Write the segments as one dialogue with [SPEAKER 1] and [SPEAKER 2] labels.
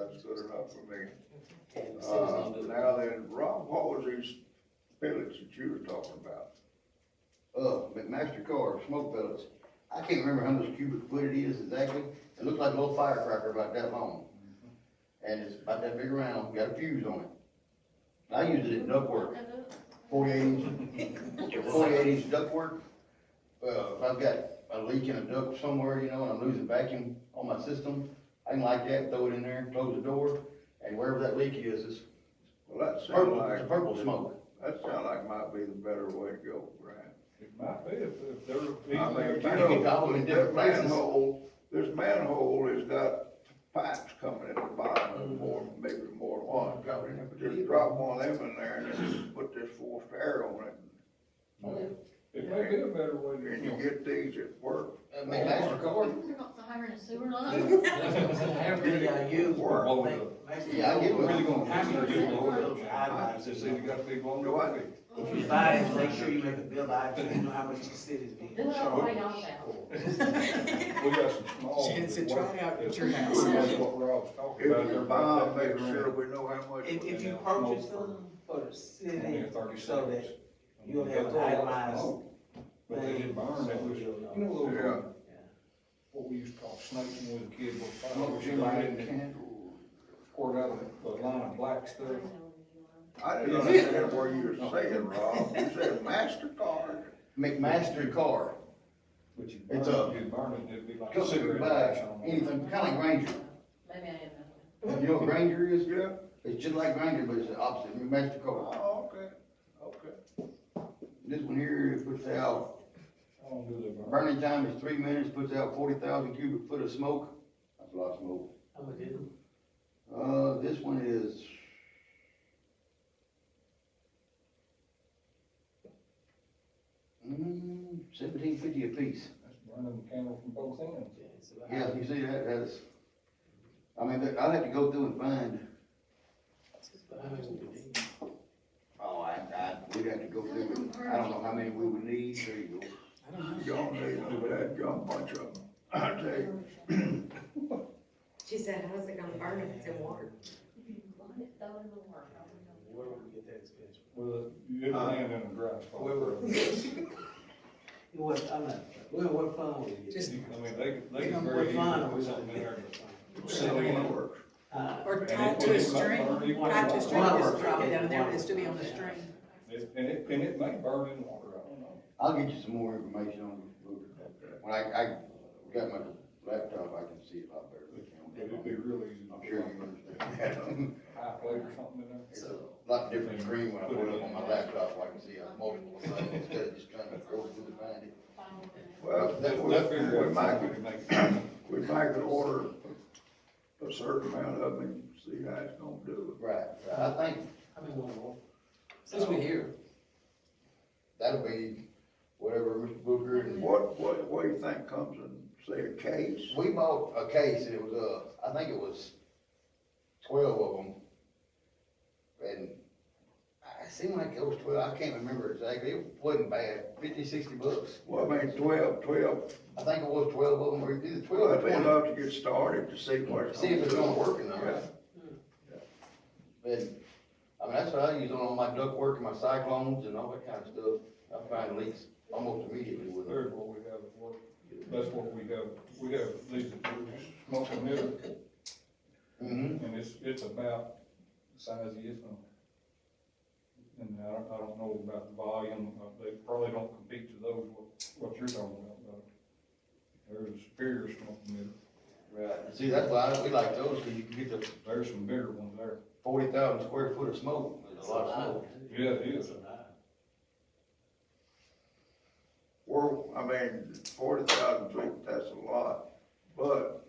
[SPEAKER 1] cleared up for me. Uh, now then, Rob, what was these pellets that you were talking about?
[SPEAKER 2] uh, McMaster car, smoke pellets. I can't remember how much cubic foot it is exactly. It looks like a little firecracker about that long. And it's about that big around, got a fuse on it. I use it in ductwork, forty-eight inch, forty-eight inch ductwork. Uh, if I've got a leak in a duct somewhere, you know, and I'm losing vacuum on my system, I can like that, throw it in there, close the door, and wherever that leak is, it's
[SPEAKER 1] Well, that sounds
[SPEAKER 2] purple, it's
[SPEAKER 1] like,
[SPEAKER 2] purple smoke.
[SPEAKER 1] that sound like might be the better way to go, Brian.
[SPEAKER 3] It might be if, if there were
[SPEAKER 1] I mean,
[SPEAKER 3] people
[SPEAKER 1] you
[SPEAKER 3] there.
[SPEAKER 2] you can
[SPEAKER 1] know,
[SPEAKER 2] call them in
[SPEAKER 1] that
[SPEAKER 2] different places.
[SPEAKER 1] manhole, this manhole has got pipes coming at the bottom and more, maybe more than one coming in. But Just drop one of them in there and then put this forced air on it.
[SPEAKER 3] It may be a better way
[SPEAKER 1] And you
[SPEAKER 3] to.
[SPEAKER 1] get these at work.
[SPEAKER 2] Uh, McMaster car,
[SPEAKER 4] We're not hiring a sewer line.
[SPEAKER 5] Every, uh, you.
[SPEAKER 1] Work.
[SPEAKER 2] Yeah, I get what-
[SPEAKER 3] Really gonna have to do all those guidelines,
[SPEAKER 5] Guidelines,
[SPEAKER 3] just say you got people on the
[SPEAKER 1] Do I-
[SPEAKER 3] way.
[SPEAKER 5] If you buy it, make sure you make a bill out, so you know how much the city's being
[SPEAKER 4] Do it all the way
[SPEAKER 5] charged.
[SPEAKER 4] out there.
[SPEAKER 3] We got some small.
[SPEAKER 6] She didn't say,
[SPEAKER 3] that
[SPEAKER 6] "Try
[SPEAKER 3] work-
[SPEAKER 6] it out at
[SPEAKER 3] that's
[SPEAKER 6] your
[SPEAKER 3] pretty
[SPEAKER 6] house."
[SPEAKER 3] much What Rob's talking about.
[SPEAKER 1] If you
[SPEAKER 3] They're
[SPEAKER 1] buy,
[SPEAKER 3] about that
[SPEAKER 1] make
[SPEAKER 3] big
[SPEAKER 1] sure
[SPEAKER 3] around.
[SPEAKER 1] we know how much.
[SPEAKER 5] If,
[SPEAKER 1] we-
[SPEAKER 5] if you purchase them for the city,
[SPEAKER 3] Only thirty
[SPEAKER 5] so that
[SPEAKER 3] seconds.
[SPEAKER 5] you'll
[SPEAKER 3] They
[SPEAKER 5] have
[SPEAKER 3] throw a lot of
[SPEAKER 5] itemized
[SPEAKER 3] smoke, But they
[SPEAKER 5] thing,
[SPEAKER 3] didn't burn that,
[SPEAKER 5] so
[SPEAKER 3] was, you
[SPEAKER 5] you'll
[SPEAKER 3] know,
[SPEAKER 5] know.
[SPEAKER 3] those,
[SPEAKER 1] Yeah.
[SPEAKER 3] little- what we used to call snakes when we were kids, what fire.
[SPEAKER 2] smoke
[SPEAKER 3] was in there,
[SPEAKER 2] lighting
[SPEAKER 3] and it
[SPEAKER 2] candles.
[SPEAKER 3] Poured out of the line of black stuff.
[SPEAKER 1] I didn't understand where you were saying, Rob. You said MasterCard.
[SPEAKER 2] McMaster car.
[SPEAKER 3] But you burn
[SPEAKER 2] It's
[SPEAKER 3] it,
[SPEAKER 2] a-
[SPEAKER 3] you burn it, it'd be like.
[SPEAKER 2] Come here,
[SPEAKER 3] cigarette
[SPEAKER 2] buy
[SPEAKER 3] ash on it.
[SPEAKER 2] anything, kinda like Granger.
[SPEAKER 4] Maybe I didn't know.
[SPEAKER 2] You know what Granger is?
[SPEAKER 1] Yeah.
[SPEAKER 2] It's just like Granger, but it's the opposite, McMaster car.
[SPEAKER 1] Oh, okay, okay.
[SPEAKER 2] This one here puts out,
[SPEAKER 3] I don't do the burn.
[SPEAKER 2] burning time is three minutes, puts out forty thousand cubic foot of smoke. That's a lot of smoke.
[SPEAKER 5] How much is it?
[SPEAKER 2] Uh, this one is. Mm, seventeen fifty apiece.
[SPEAKER 3] That's burning the candle from both ends.
[SPEAKER 5] Yeah, it's about-
[SPEAKER 2] Yeah, you see that, that's, I mean, that- I'll have to go through and find,
[SPEAKER 5] it's about a hundred.
[SPEAKER 2] oh, I, I, we'd have to go through, and- I don't know how many we would need, there you go.
[SPEAKER 5] I don't know.
[SPEAKER 1] Y'all need a bad gum bunch of them. I tell you,
[SPEAKER 7] She said, how's it gonna burn if it's in water?
[SPEAKER 4] Throw it in the work.
[SPEAKER 5] Where would we get that expensive?
[SPEAKER 3] Well, you
[SPEAKER 1] Uh,
[SPEAKER 3] land in a dry spot.
[SPEAKER 5] we were- It was, I mean, well, what fund would it
[SPEAKER 3] You
[SPEAKER 5] get?
[SPEAKER 3] can- I mean, they, could- they
[SPEAKER 5] You know,
[SPEAKER 3] could
[SPEAKER 5] what
[SPEAKER 3] very
[SPEAKER 5] fund
[SPEAKER 3] easily
[SPEAKER 5] are
[SPEAKER 3] put
[SPEAKER 5] we
[SPEAKER 3] something in
[SPEAKER 5] gonna
[SPEAKER 1] sell it
[SPEAKER 5] get?
[SPEAKER 3] there.
[SPEAKER 1] works.
[SPEAKER 5] Uh,
[SPEAKER 3] and
[SPEAKER 8] Or
[SPEAKER 3] it-
[SPEAKER 8] tied
[SPEAKER 3] and
[SPEAKER 8] to a
[SPEAKER 3] it might
[SPEAKER 8] string,
[SPEAKER 3] burn, you
[SPEAKER 5] Tied
[SPEAKER 3] can-
[SPEAKER 8] tied to a string,
[SPEAKER 5] Water.
[SPEAKER 8] just drop it down there, it has to be on the string.
[SPEAKER 3] It- And it, and it may burn in water, I don't know.
[SPEAKER 2] I'll get you some more information on it, Luke. when I, I got my laptop, I can see it a lot better
[SPEAKER 3] But it'd
[SPEAKER 2] than
[SPEAKER 3] be really easy.
[SPEAKER 2] I
[SPEAKER 3] to
[SPEAKER 2] can. I'm
[SPEAKER 3] put
[SPEAKER 2] sure
[SPEAKER 3] like
[SPEAKER 2] you understand
[SPEAKER 3] High plate or something in there.
[SPEAKER 2] that. It's a lot different screen when I put it up on my laptop, I can see a multiple things instead of just trying to go through and find it.
[SPEAKER 1] Well,
[SPEAKER 3] That, that figure.
[SPEAKER 1] we, we might,
[SPEAKER 3] would
[SPEAKER 1] could-
[SPEAKER 3] make.
[SPEAKER 1] we might could order a certain amount of them and see how it's gonna do.
[SPEAKER 2] Right, right. I think
[SPEAKER 5] I mean, one more. Since we're here,
[SPEAKER 2] that'll be whatever Mr. Booker and
[SPEAKER 1] What, what, what do you think comes in, say, a case?
[SPEAKER 2] We bought a case and it was, uh, I think it was twelve of them. And I- it seemed like it was twelve, I can't remember exactly, it wasn't bad, fifty, sixty bucks.
[SPEAKER 1] Well, I mean, twelve, twelve,
[SPEAKER 2] I think it was twelve of them, or either twelve or
[SPEAKER 1] twelve, we'd
[SPEAKER 2] twenty,
[SPEAKER 1] love to get started to see what it's
[SPEAKER 2] see if
[SPEAKER 1] gonna
[SPEAKER 2] it's gonna
[SPEAKER 1] do.
[SPEAKER 2] work or not. But, I mean, that's what I use on all my ductwork and my cyclones and all that kind of stuff. I find leaks almost immediately with them.
[SPEAKER 3] There's what we have at work, that's what we have, we have these, we're just smoking it.
[SPEAKER 2] Mm-hmm.
[SPEAKER 3] And it's, it's about the size of this one. And I don't, I don't know about the volume, uh, they probably don't compete to those, what, what you're talking about, but there's superior smoke meter,
[SPEAKER 2] Right. See, that's why we like those, cause you can get the
[SPEAKER 3] there's some bigger ones there.
[SPEAKER 2] forty thousand square foot of smoke, there's a lot of smoke.
[SPEAKER 3] Yeah, it is.
[SPEAKER 1] Well, I mean, forty thousand feet, that's a lot, but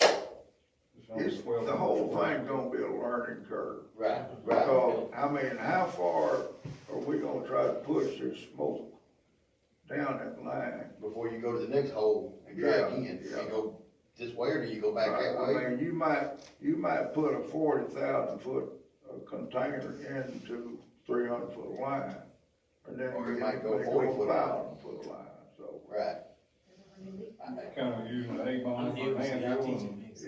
[SPEAKER 3] It's only
[SPEAKER 1] it's,
[SPEAKER 3] 12
[SPEAKER 1] the whole
[SPEAKER 3] square.
[SPEAKER 1] thing gonna be a learning curve.
[SPEAKER 2] Right, right.
[SPEAKER 1] Because, I mean, how far are we gonna try to push this smoke down that line?
[SPEAKER 2] Before you go to the next hole and try
[SPEAKER 1] Yeah,
[SPEAKER 2] again, do you
[SPEAKER 1] yeah.
[SPEAKER 2] go this way or do you go back that way?
[SPEAKER 1] I mean, you might, you might put a forty thousand foot uh, container into three hundred foot line. And then
[SPEAKER 2] Or you
[SPEAKER 1] you
[SPEAKER 2] might
[SPEAKER 1] might
[SPEAKER 2] go
[SPEAKER 1] go
[SPEAKER 2] 40 foot line.
[SPEAKER 1] five hundred foot line, so.
[SPEAKER 2] Right.
[SPEAKER 3] Kind of using the A-bomb
[SPEAKER 5] I'm
[SPEAKER 3] for
[SPEAKER 5] new,
[SPEAKER 3] a
[SPEAKER 5] so
[SPEAKER 3] hand,
[SPEAKER 5] I'm
[SPEAKER 3] drill and-
[SPEAKER 5] teaching things.